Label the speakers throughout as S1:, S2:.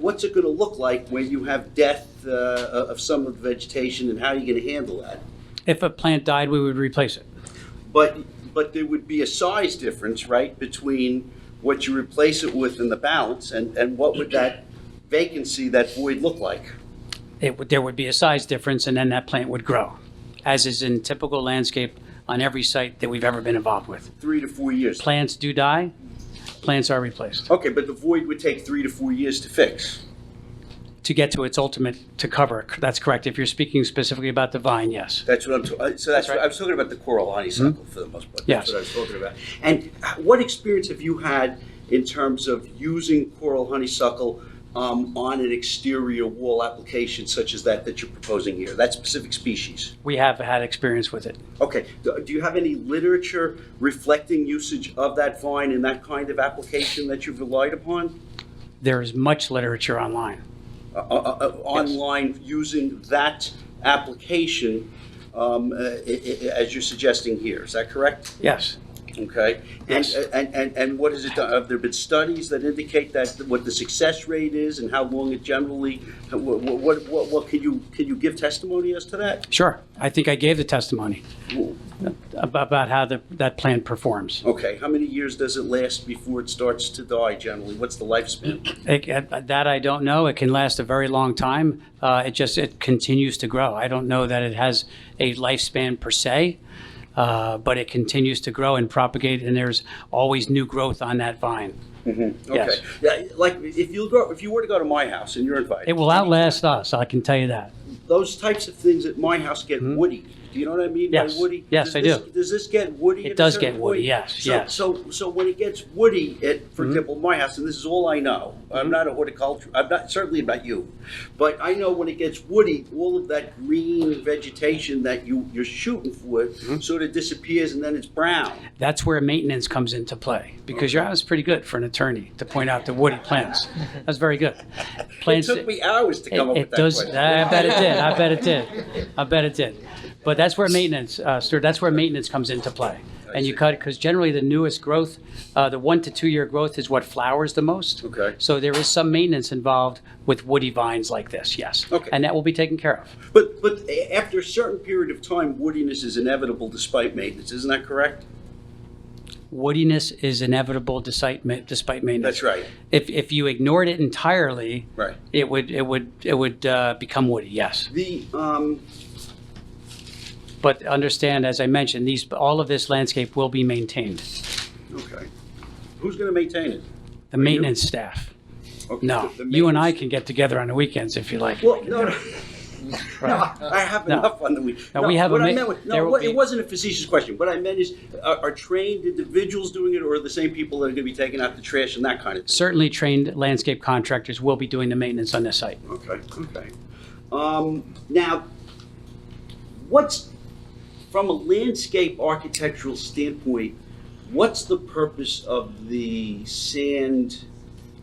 S1: What's it going to look like when you have death uh, of some of the vegetation, and how are you going to handle that?
S2: If a plant died, we would replace it.
S1: But, but there would be a size difference, right, between what you replace it with and the balance, and, and what would that vacancy, that void look like?
S2: It would, there would be a size difference and then that plant would grow, as is in typical landscape on every site that we've ever been involved with.
S1: Three to four years.
S2: Plants do die, plants are replaced
S1: Okay, but the void would take three to four years to fix.
S2: to get to its ultimate, to cover. That's correct. If you're speaking specifically about the vine, yes.
S1: That's what I'm, ta- uh, so that's,
S2: That's
S1: what
S2: right.
S1: I was talking about the coral honeysuckle for the most part. That's
S2: Yes.
S1: what I was talking about. And what experience have you had in terms of using coral honeysuckle um, on an exterior wall application such as that that you're proposing here, that specific species?
S2: We have had experience with it.
S1: Okay, do do you have any literature reflecting usage of that vine in that kind of application that you've relied upon?
S2: There is much literature online.
S1: uh, uh, uh, online using that application um, uh, i- i- as you're suggesting here, is that correct?
S2: Yes.
S1: Okay? And,
S2: Yes.
S1: and, and and what has it done? Have there been studies that indicate that, what the success rate is and how long it generally, what, what, what, what can you, can you give testimony as to that?
S2: Sure. I think I gave the testimony about about how the, that plant performs.
S1: Okay, how many years does it last before it starts to die generally? What's the lifespan?
S2: It- uh, That I don't know. It can last a very long time. Uh, It just, it continues to grow. I don't know that it has a lifespan per se, uh, but it continues to grow and propagate, and there's always new growth on that vine.
S1: Okay,
S2: Yes.
S1: Yeah, like, if you go, if you were to go to my house and you're invited.
S2: It will outlast us, I can tell you that.
S1: those types of things at my house get woody. Do you know what I mean
S2: Mm-hmm. Yes.
S1: by woody?
S2: Yes,
S1: does
S2: I
S1: this,
S2: do.
S1: Does this get woody?
S2: It
S1: at a
S2: does
S1: certain
S2: get woody,
S1: point?
S2: yes,
S1: so,
S2: yes. Mm-hmm.
S1: So, so when it gets woody, at for example, my house, and this is all I know. I'm not a horticulturist. I'm not certainly not you, but I know when it gets woody, all of that green vegetation that you you're shooting for
S2: Mm-hmm.
S1: sort of disappears, and then it's brown.
S2: That's where maintenance comes into play, because your house is pretty good for an attorney to point out the woody plants. That's very good.
S1: It
S2: Plants.
S1: took me hours to
S2: It,
S1: come up
S2: it
S1: with that
S2: does.
S1: question.
S2: I bet it did. I bet it did. I bet it did. But that's where maintenance, uh, Stuart. That's where maintenance comes into play. And you
S1: see.
S2: cut because generally the newest growth, uh, the one to two year growth, is what flowers the most.
S1: Okay.
S2: So there is some maintenance involved with woody vines like this. Yes.
S1: Okay.
S2: And that will be taken care of.
S1: But but a- after a certain period of time, woodiness is inevitable despite maintenance. Isn't that correct?
S2: Woodiness is inevitable despite ma- despite maintenance.
S1: That's right.
S2: If if you ignored it entirely,
S1: Right.
S2: it would it would it would uh, become woody. Yes.
S1: The um,
S2: But understand, as I mentioned, these all of this landscape will be maintained.
S1: Okay. Who's going to maintain it?
S2: The maintenance staff.
S1: Okay,
S2: No,
S1: the- the
S2: you and I
S1: maintenance-
S2: can get together on the weekends if you like.
S1: Well, no, no.
S2: Right.
S1: No, I have
S2: No.
S1: enough on the week.
S2: No, we have a
S1: what I
S2: ma-
S1: meant was-
S2: there
S1: No,
S2: will
S1: what-
S2: be-
S1: it wasn't a facetious question. What I meant is, are are trained individuals doing it, or are the same people that are going to be taking out the trash and that kind of thing?
S2: Certainly trained landscape contractors will be doing the maintenance on this site.
S1: Okay, okay. Um, Now, what's, from a landscape architectural standpoint, what's the purpose of the sand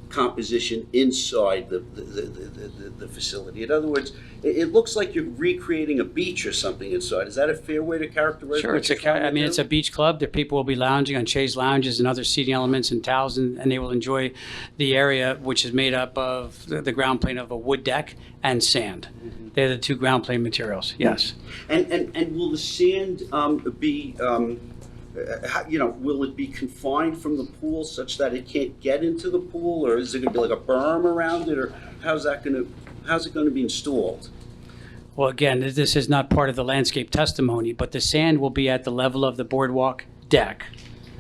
S1: composition inside the, the, the, the- the, the facility? In other words, it, it looks like you're recreating a beach or something inside. Is that a fair way to characterize?
S2: Sure,
S1: what
S2: it's a,
S1: you're
S2: ca-
S1: trying to
S2: I mean,
S1: do?
S2: it's a beach club. There, people will be lounging on chaise lounges and other seating elements and towels, and, and they will enjoy the area, which is made up of the, the ground plane of a wood deck and sand.
S1: Mm-hmm.
S2: They're the two ground plane materials, yes.
S1: And, and, and will the sand um, be, um, uh, how- you know, will it be confined from the pool such that it can't get into the pool? Or is it gonna be like a berm around it, or how's that gonna, how's it gonna be installed?
S2: Well, again, th- this is not part of the landscape testimony, but the sand will be at the level of the boardwalk deck,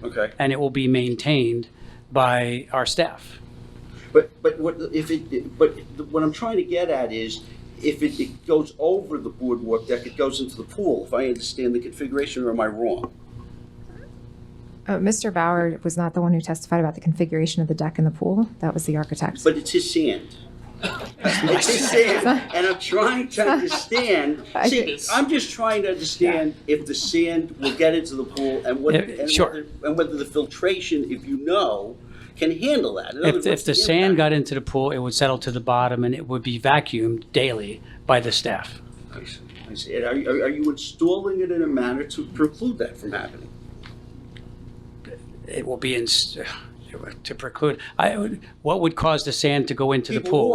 S1: Okay,
S2: and it will be maintained by our staff.
S1: but, but what, if it, but what I'm trying to get at is, if it- it goes over the boardwalk deck, it goes into the pool, if I understand the configuration, or am I wrong?
S3: Uh, Mr. Bauer was not the one who testified about the configuration of the deck and the pool. That was the architect.
S1: But it's his sand. It's his sand, and I'm trying to understand,
S3: I-
S1: see, I'm just trying to understand if the sand will get into the pool and what,
S2: Yeah,
S1: and
S2: sure.
S1: whether- and whether the filtration, if you know, can handle that. In other
S2: If,
S1: words,
S2: if the sand
S1: impact-
S2: got into the pool, it would settle to the bottom and it would be vacuumed daily by the staff.
S1: I see, I see. And Are, you- are you installing it in a manner to preclude that from happening?
S2: It will be in, to preclude, I, would- what would cause the sand to go into the
S1: People
S2: pool?